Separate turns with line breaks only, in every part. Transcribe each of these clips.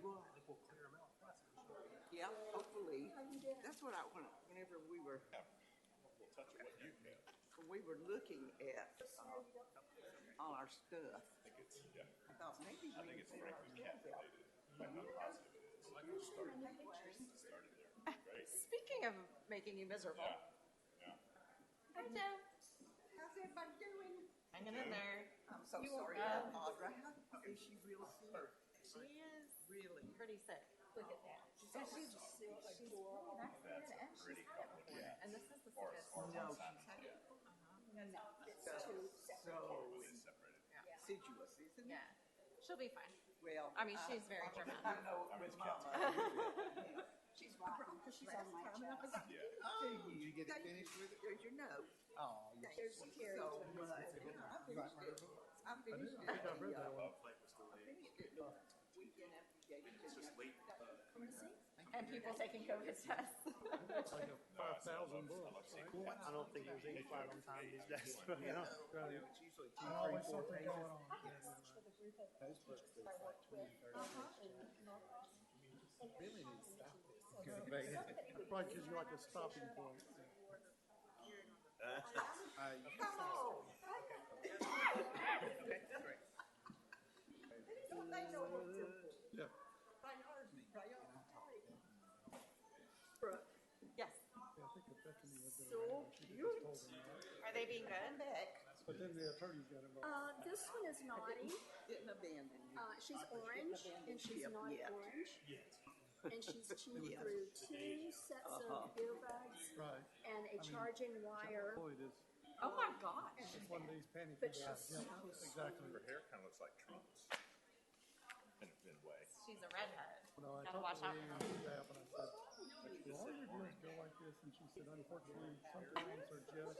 will.
I think we'll clear them out.
Yeah, hopefully. That's what I, when- whenever we were,
We'll touch on what you can.
when we were looking at, uh, all our stuff,
I think it's, yeah,
I thought maybe we.
I think it's frankly cat related. I'm not positive it is. Like we started, started there. Great.
Speaking of making you miserable,
Hi, Joe.
How's everybody doing?
hanging in there.
I'm so
You
sorry,
are-
about Audra. How- Is she real sick?
She is
Really?
pretty sick.
Look at that. She's she's she's vaccinated and she's high.
And this is the sickest.
No, she's had it.
No, it's
So,
too
so
Separated.
assiduous, isn't it?
Yeah. She'll be fine.
Well.
I mean, she's
I-
very dramatic.
I know
I
with
mean,
Mama.
She's rotten because she's on my chest.
Yeah.
Oh, Did you get finished with it? There's your note.
Oh, you
There's so much. I
like
finished
my
it.
book?
I finished it.
I think I read that one.
Flight was delayed.
Finished it the weekend after you gave it to me.
And people taking COVID tests.
It's like a five thousand bucks.
I don't think there's any fire on time these
It's
days.
usually two, three, four pages.
I had lunch with a group of teachers I worked with uh-huh, in Norcross. And every
Really
time
need to
we
stop
would
this.
do
Go
something,
back.
somebody would
Probably gives you
bring
like
out
a stopping
shirt
point.
off and wore the beard on the-
I,
Come on. They don't- they know what to do.
Yeah.
Priority, priority.
Yes.
Yeah, I think the Bethany was there.
So cute.
Are they being
I'm
good?
back.
But then the attorneys got involved.
Uh, this one is naughty.
Didn't abandon you.
Uh, she's orange and she's
Yep,
not
yep.
orange. And she's chewed
Yes.
through two sets of
Uh-huh.
earbuds
Right.
and a charging wire.
Boy, it is.
Oh my gosh.
It's one of these panic
But
attacks.
she's
Yeah, Exactly.
Her hair kind of looks like Trump's. In a good way.
She's a redhead.
You know, I
Gotta
talked
watch
to
out
Lee
for
and her staff and I said, why are your doing go like this? And she said, unfortunately, some parents are just,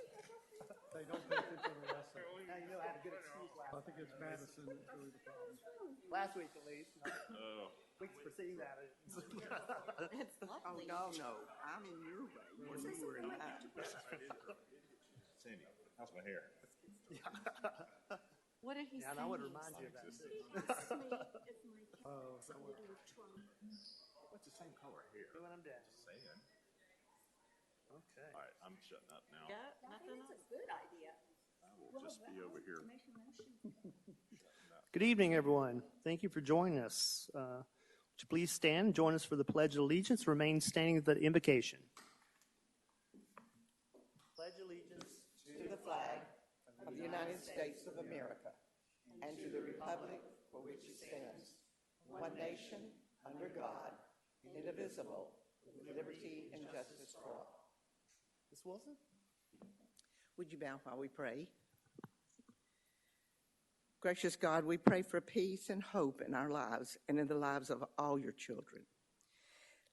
they don't pay attention to wrestling.
now you know I had a good excuse last,
I think it's Madison that's really the problem.
last week at least.
Oh.
Weeks preceding that. it's-
It's
Oh,
lovely.
no, no, I'm in your way. When you were in mine.
Sandy, how's my hair?
What did he
Yeah,
say?
and I would remind you of that.
Non-existent.
He asked me if my kids
Oh,
had something to do with Trump.
What's the same color hair?
When I'm down.
Saying.
Okay.
All right, I'm shutting up now.
Yeah,
I
nothing
think
else.
that's a good idea.
I will just be over here.
Make a motion.
Good evening, everyone. Thank you for joining us. Uh, Would you please stand, and join us for the Pledge of Allegiance, remain standing at the invocation.
Pledge allegiance.
To the flag of the United States of America and to the republic for which it stands, one nation, under God, indivisible, with liberty and justice for all.
This Wilson?
Would you bow while we pray? Gracious God, we pray for peace and hope in our lives and in the lives of all your children.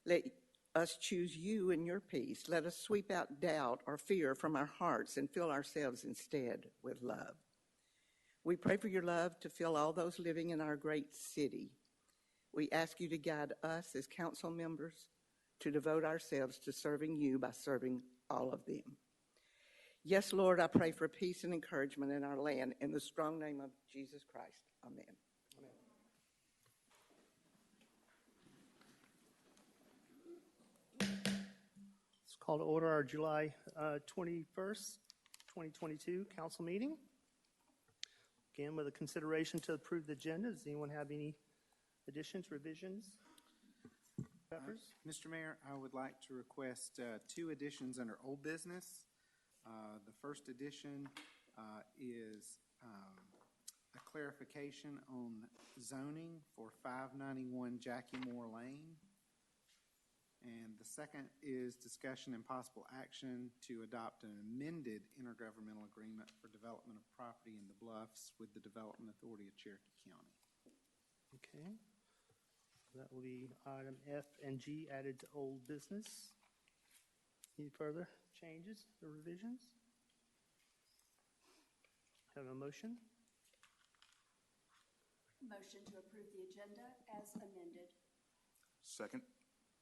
Let us choose you and your peace. Let us sweep out doubt or fear from our hearts and fill ourselves instead with love. We pray for your love to fill all those living in our great city. We ask you to guide us as council members to devote ourselves to serving you by serving all of them. Yes, Lord, I pray for peace and encouragement in our land. In the strong name of Jesus Christ, amen.
Let's call to order our July uh, 21st, 2022 council meeting. Again, with a consideration to approve the agenda, does anyone have any additions, revisions? Peppers?
Mr. Mayor, I would like to request uh, two additions under old business. Uh, The first addition uh, is um, a clarification on zoning for 591 Jackie Moore Lane. And the second is discussion and possible action to adopt an amended intergovernmental agreement for development of property in the Bluffs with the Development Authority of Cherokee County.
Okay. That will be item F and G added to old business. Any further changes or revisions? Have a motion?
Motion to approve the agenda as amended.
Second.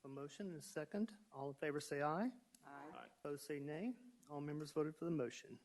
A motion and a second. All in favor say aye.
Aye.
Opposed say nay. All members voted for the motion.